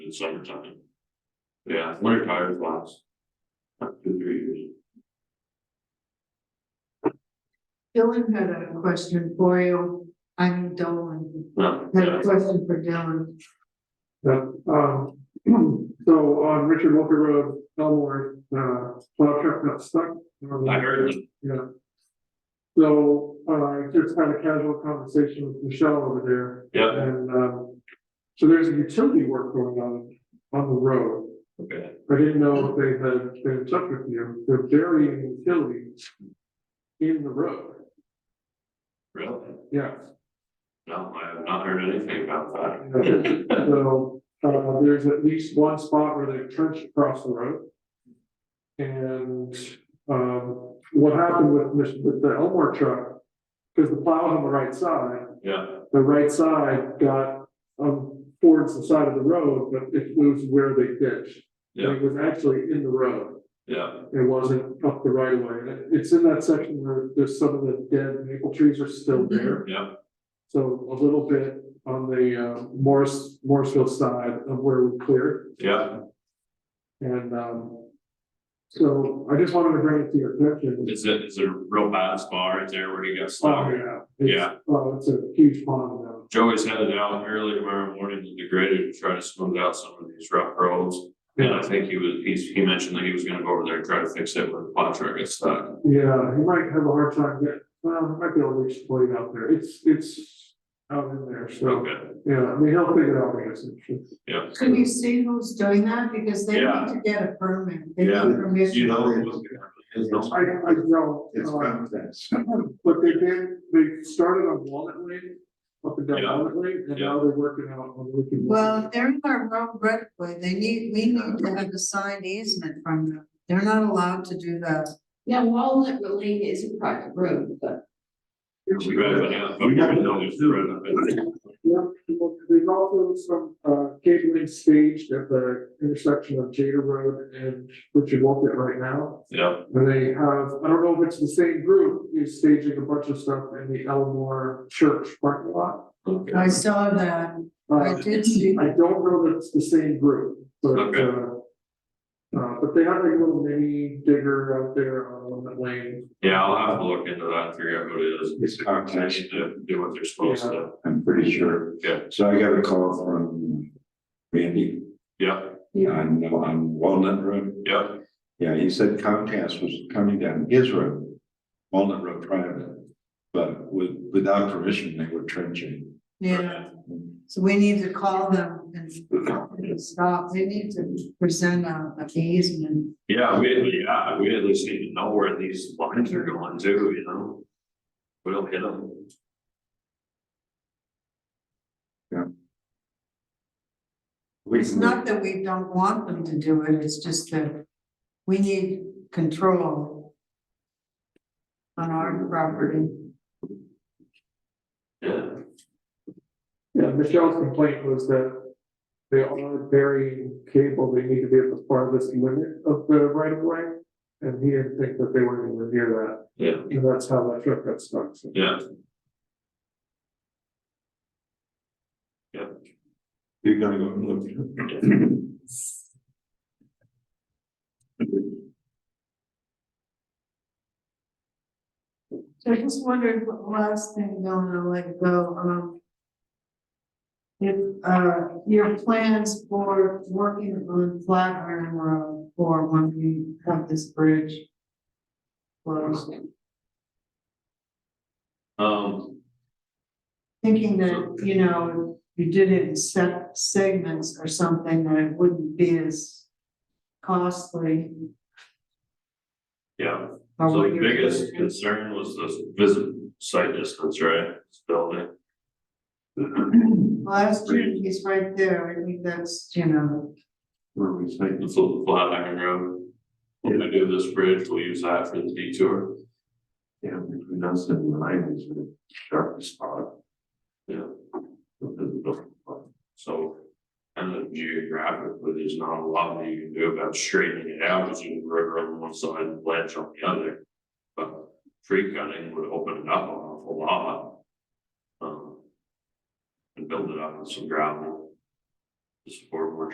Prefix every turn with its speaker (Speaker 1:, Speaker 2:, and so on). Speaker 1: the summertime. Yeah, winter tires last. about Two, three years.
Speaker 2: Dylan had a question for you. I mean, Dolan
Speaker 1: No,
Speaker 2: had a
Speaker 1: yeah,
Speaker 2: question for Dylan.
Speaker 3: Yeah, um, so on Richard Walker Road, Elmore, uh, plow truck got stuck.
Speaker 1: I heard it.
Speaker 3: Yeah. So, uh, I just had a casual conversation with Michelle over there.
Speaker 1: Yeah.
Speaker 3: And, um, so there's a utility work going on, on the road.
Speaker 1: okay,
Speaker 3: I didn't know if they had been in touch with you, they're burying utilities in the road,
Speaker 1: really?
Speaker 3: yeah.
Speaker 1: No, I have not heard anything about that.
Speaker 3: Yeah, So, uh, there's at least one spot where they trench across the road. And, um, what happened with, Mich- with the Elmore truck, because the plow's on the right side,
Speaker 1: Yeah,
Speaker 3: the right side got, um, towards the side of the road, but it was where they ditched. And It was actually in the road,
Speaker 1: yeah,
Speaker 3: it wasn't up the right of way, And it- it's in that section where there's some of the dead maple trees are still there.
Speaker 1: yeah,
Speaker 3: So a little bit on the uh, Morris, Morrisville side of where we cleared
Speaker 1: yeah,
Speaker 3: and um. So I just wanted to bring it to your attention.
Speaker 1: is it, is it a real bad spot right there where he got
Speaker 3: Oh,
Speaker 1: stuck?
Speaker 3: yeah. It's-
Speaker 1: Yeah.
Speaker 3: Oh, it's a huge pond now.
Speaker 1: Joey's headed out early tomorrow morning to degrade to try to smooth out some of these rough roads. And I think he was, he's, he mentioned that he was gonna go over there and try to fix it when the plow truck gets stuck.
Speaker 3: Yeah, you might have a hard time getting, well, it might be a little exploited out there. It's, it's out in there, so,
Speaker 1: Okay,
Speaker 3: yeah, I mean, he'll figure it out, I guess. It's- it's-
Speaker 1: yeah.
Speaker 2: Can you see who's doing that? Because they need
Speaker 1: Yeah.
Speaker 2: to get a permit. They need
Speaker 1: Yeah.
Speaker 2: permission.
Speaker 1: You know, it was- it's
Speaker 3: I,
Speaker 1: no-
Speaker 3: I don't.
Speaker 4: It's
Speaker 3: uh,
Speaker 4: confidence.
Speaker 3: But they did, they started on Walnut Lane, up and down
Speaker 1: Yeah.
Speaker 3: Walnut Lane, and now they're working out on Lincoln. Lane.
Speaker 2: Well, they're in our road right away. They need, we need to have a signed easement from them. They're not allowed to do that.
Speaker 5: Now Walnut Lane is a private road, but
Speaker 1: We drive it out, but
Speaker 4: We
Speaker 1: we
Speaker 4: got
Speaker 1: don't
Speaker 4: it.
Speaker 1: know if it's right up there.
Speaker 3: Yeah, well, there's also some uh cabling staged at the intersection of Jada Road and Richard Walker right now.
Speaker 1: Yeah,
Speaker 3: And they have, I don't know if it's the same group, is staging a bunch of stuff in the Elmore Church parking lot.
Speaker 1: okay,
Speaker 2: I saw that. I
Speaker 3: Uh,
Speaker 2: did see.
Speaker 3: I don't know that it's the same group, but
Speaker 1: Okay.
Speaker 3: uh. Uh, but they have like a little mini digger out there on that lane.
Speaker 1: yeah, I'll have to look into that and figure out who it is.
Speaker 4: It's
Speaker 1: I need
Speaker 4: confidence,
Speaker 1: to do what they're supposed to,
Speaker 4: I'm pretty sure.
Speaker 1: Yeah.
Speaker 4: So I got a call from Randy
Speaker 1: yeah,
Speaker 4: on, on Walnut Road.
Speaker 1: yeah,
Speaker 4: Yeah, he said Comcast was coming down his road, Walnut Road private. But with, without permission, they were trenching.
Speaker 2: Yeah, so we need to call them and stop. They need to present a a easement.
Speaker 1: yeah, we, yeah, we at least need to know where these lines are going to, you know? We don't hit them.
Speaker 2: It's not that we don't want them to do it, it's just that we need control on our property.
Speaker 1: Yeah,
Speaker 3: Yeah, Michelle's complaint was that they are burying cable, they need to be at the farthest limit of the right of way. And he didn't think that they were anywhere near
Speaker 1: yeah,
Speaker 3: that, and that's how that truck got stuck. so.
Speaker 1: yeah,
Speaker 4: You're gonna go and look.
Speaker 2: So I just wondered, what last thing, Donna, like, go, um. If, uh, your plans for working on Flatiron Road for when we have this bridge. closed,
Speaker 1: um,
Speaker 2: thinking that, you know, if you did it in set segments or something, that it wouldn't be as costly.
Speaker 1: yeah.
Speaker 2: or
Speaker 1: So
Speaker 2: what
Speaker 1: the
Speaker 2: you're
Speaker 1: biggest
Speaker 2: doing.
Speaker 1: concern was the visit site distance, right, This building?
Speaker 2: Last year, he's right there, I think that's, you know,
Speaker 4: Where we say.
Speaker 1: It's a flat iron road. When we do this bridge, we'll use that for the detour.
Speaker 4: Yeah, between us and the line is the sharpest spot.
Speaker 1: Yeah.
Speaker 4: Well,
Speaker 1: So, and then geographically, there's not a lot that you can do about straightening it out, because you can river on one side and ledge on the other. But tree cutting would open it up an awful lot. Um, And build it up with some gravel. To support more